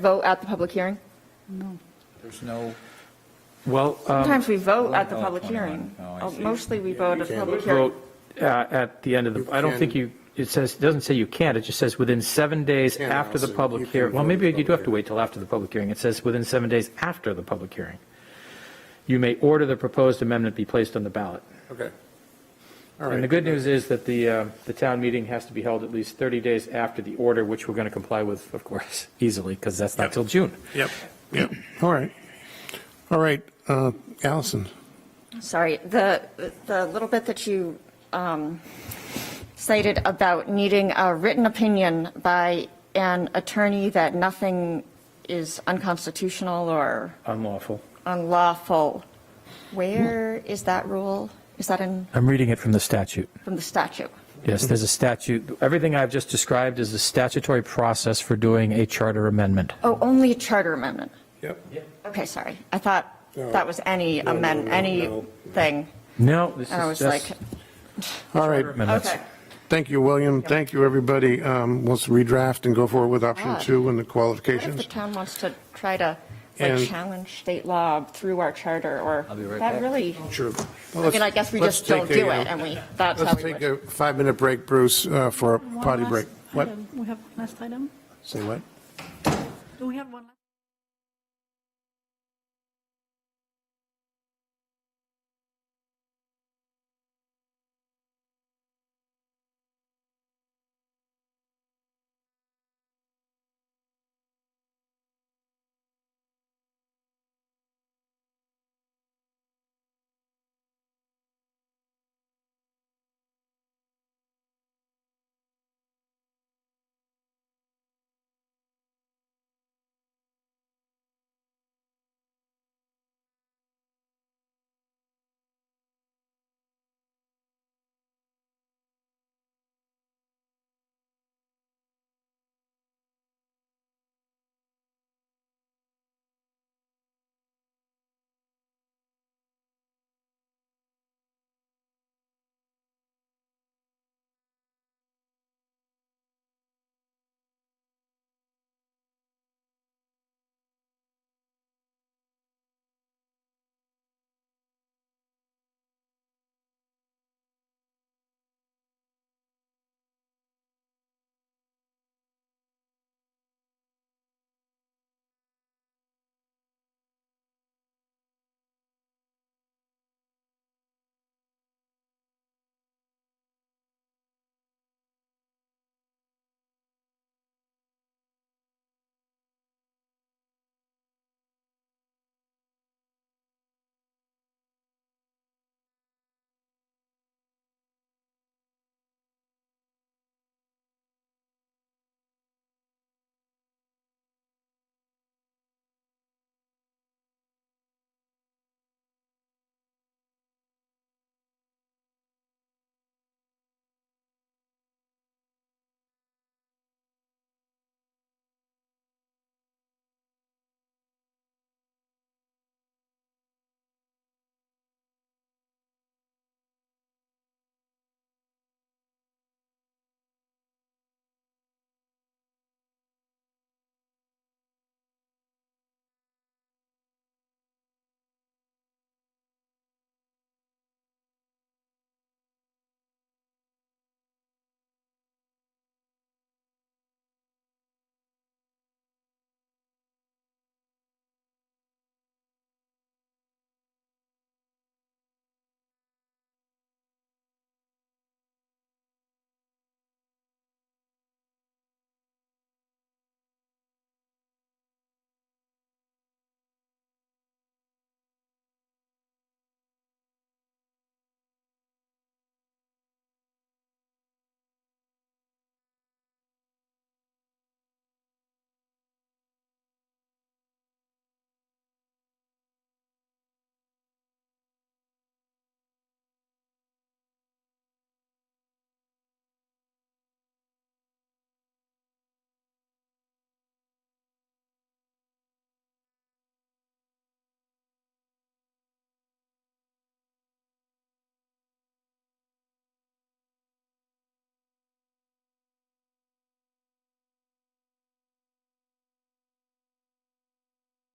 vote at the public hearing? There's no, Well, um, Sometimes we vote at the Oh, public 21. hearing. Oh, I Oh, see. Mostly we vote at the public hearing. vote uh, at the end of the, I don't think you, it says, it doesn't say you can't, it just says within seven days Can after the also. You public can hearing. Well, vote maybe at the you do have to public wait till after the public hearing. It says within seven days after the public hearing. You may order the proposed amendment be placed on the ballot. Okay. All And the right. good news is that the, uh, the town meeting has to be held at least 30 days after the order, which we're going to comply with, of course, easily, because that's not Yep. till June. Yep, yep. All right. All right, uh, Allison. Sorry, the, the little bit that you um, cited about needing a written opinion by an attorney that nothing is unconstitutional or Unlawful. unlawful, where is that rule? Is that in, I'm reading it from the statute. from the statute? Yes, there's a statute. Everything I've just described is the statutory process for doing a charter amendment. Oh, only a charter amendment? Yep. Okay, sorry. I thought No. that was any No, no, amend, no, no. anything. No, this And I was is like, just All right. amendments. okay. Thank you, William. Thank you, everybody. Um, Let's redraft and go forward with option Yeah. two and Ah. What the if the qualifications. town wants to try to, like, And- challenge state law through our charter, or? I'll be right That back. really, Sure. I mean, I guess we just don't do it, and we, that's how uh, Let's we take would. a five-minute break, Bruce, uh, for a One potty last break. What? item. We have last item? Say what? Do we have one? last-